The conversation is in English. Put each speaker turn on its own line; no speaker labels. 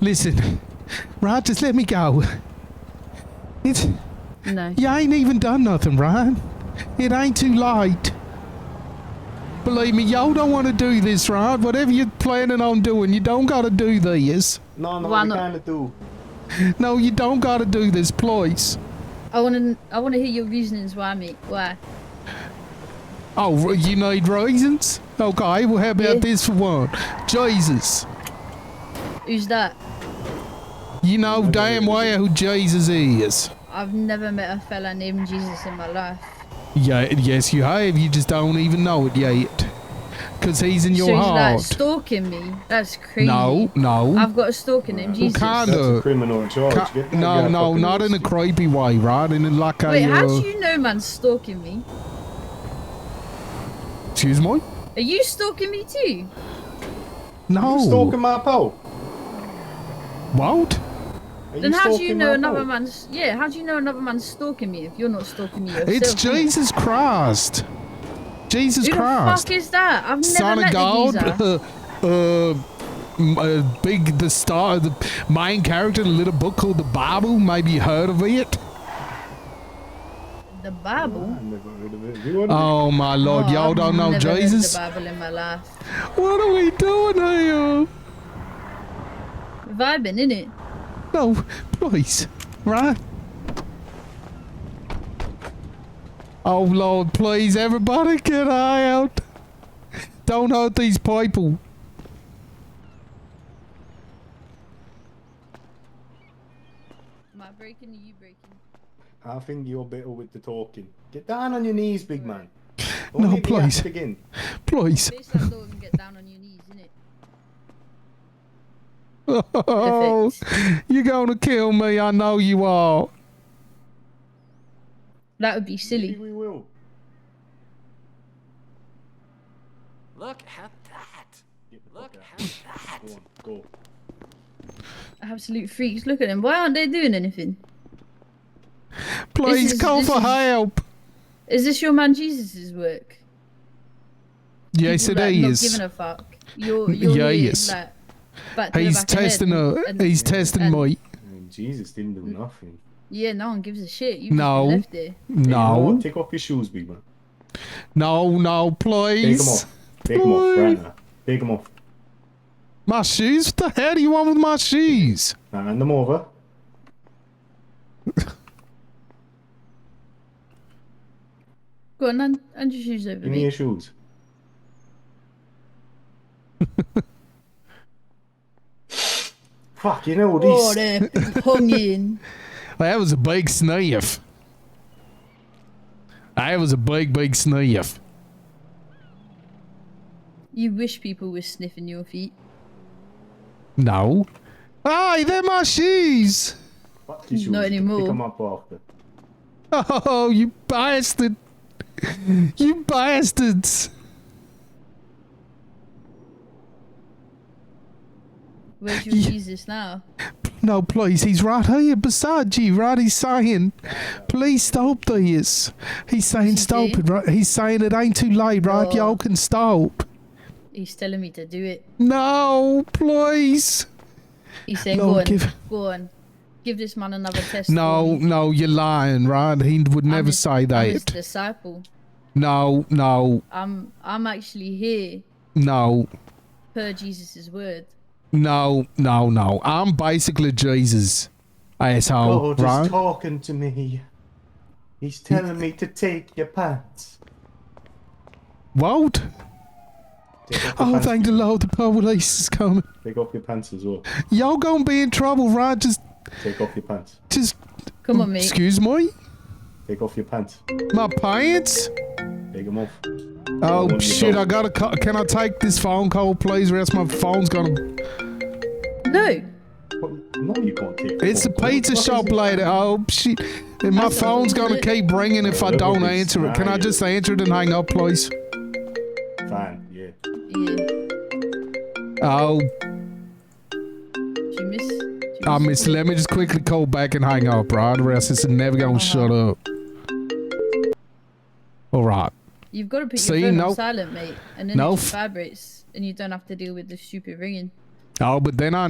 Listen, Rod, just let me go. It's
No.
you ain't even done nothing, Ryan. It ain't too late. Believe me, y'all don't want to do this, right? Whatever you're planning on doing, you don't gotta do this.
No, no,
Why
we
not?
kinda do.
No, you don't gotta do this, please.
I want to. I want to hear your reasonings why, mate. Why?
Oh, r- you need reasons? Okay, well, how about
Yeah.
this for one? Jesus.
Who's that?
You know damn well who Jesus is.
I've never met a fella named Jesus in my life.
Yeah, yes, you have. You just don't even know it yet. Because he's in your
so he's
heart.
like stalking me. That's crazy.
no, no.
I've got a stalker named Jesus.
can't-
That's
Kinda.
a criminal charge.
Ca-
Get that
no,
guy
no,
fucking
not in a
arrested.
creepy way, right? In a, like a.
Wait, how
uh,
do you know man's stalking me?
Excuse me?
Are you stalking me too?
No.
You stalking my pole?
What?
Are
then how do you
stalking
know
my
another
pole?
man's? Yeah, how do you know another man's stalking me if you're not stalking me yourself?
It's
mate?
Jesus Christ. Jesus
Who
Christ.
the fuck is that? I've never
Son
met
of God.
the geezer.
Uh, uh, m- uh, big, the star, the main character in a little book called the Bible. Maybe you heard of it.
The Bible.
I never heard of it. You want
Oh my Lord,
Oh,
y'all
I've
don't know
never heard
Jesus.
the Bible in my life.
What are we doing here?
Vibing, innit?
No, please, right? Oh Lord, please, everybody get eye out. Don't hurt these people.
Am I breaking or you breaking?
I think you're better with the talking. Get down on your knees, big man. Don't
No,
hit the
please.
act Again.
Please.
Face that door and get down on your knees, innit?
Oh, you're gonna kill me, I know you are.
That would be
Maybe
silly.
we will.
Look at that.
Get the
Look
fuck
at
out.
that.
Go on, go.
Absolute freaks. Look at them. Why aren't they doing anything?
Please
is-
call
this
for
is-
help.
Is this your man Jesus' work?
Yes, it
People, like, Not
is.
giving a fuck. You're, you're
Yeah,
here,
yes.
like, back to the
He's
back of the head
testing
and-
her.
and-
He's testing
and-
me.
And Jesus didn't do nothing.
Yeah, no one gives a shit. You've
No.
no. left there.
You know what?
No,
Take off your shoes, big man.
no, no,
Take them
please.
off. Take them off
Why?
right now. Take them off.
My shoes? What the hell do you want with my shoes?
Now hand them over.
Go on, and, and your shoes over
Give me
me.
your shoes. Fuck, you know
Oh,
these.
there, hung in.
That was a big sniff. That was a big, big sniff.
You wish people were sniffing your feet.
No. Hey, they're my shoes.
Fuck your shoes.
Not
Pick
anymore.
them up after.
Oh, you bastard. You bastards.
Where's your
Yeah.
Jesus now?
No, please, he's right here beside you, right? He's saying, please stop this. He's saying,
he
stop
do?
it, right? He's saying it ain't too late, right?
Oh.
Y'all can stop.
He's telling me to do it.
No, please.
He's saying,
Lord,
go on,
give-
go on. Give this man another test. for
No,
me.
no, you're lying, right? He would
I'm
never
his-
say
I'm his
that.
disciple.
No, no,
I'm, I'm actually here
no,
per Jesus' word.
no, no, no. I'm basically Jesus, asshole,
God is
right?
talking to me. He's telling me to take your pants.
What?
Take off your
Oh,
pants.
thank the Lord, the police is coming.
Take off your pants as well.
Y'all gonna be in trouble, right? Just,
Take off your pants.
just.
Come on, mate.
Excuse me?
Take off your pants.
My pants?
Take them off.
Oh
your
shit!
phone.
I gotta. Call. Can I take this phone call, please? Or else my phone's gonna.
no,
What? No, you can't take them
It's a
off. What
pizza
the fuck
shop
is it?
lady. Oh shit! And my
That's a
phone's gonna
little bit-
keep ringing if I
Little
don't
bit
answer it. Can I
snide.
just answer it and hang up, please?
Fine, yeah.
yeah. Did
Oh,
you miss? did you
I
miss
miss.
the call?
Let me just quickly call back and hang up, right? Or else it's never gonna shut up. All right.
You've got to put
See,
your phone
no-
on silent, mate, and then
no
it
f-
just vibrates, and you don't have to deal with the stupid ringing.
Oh, but then I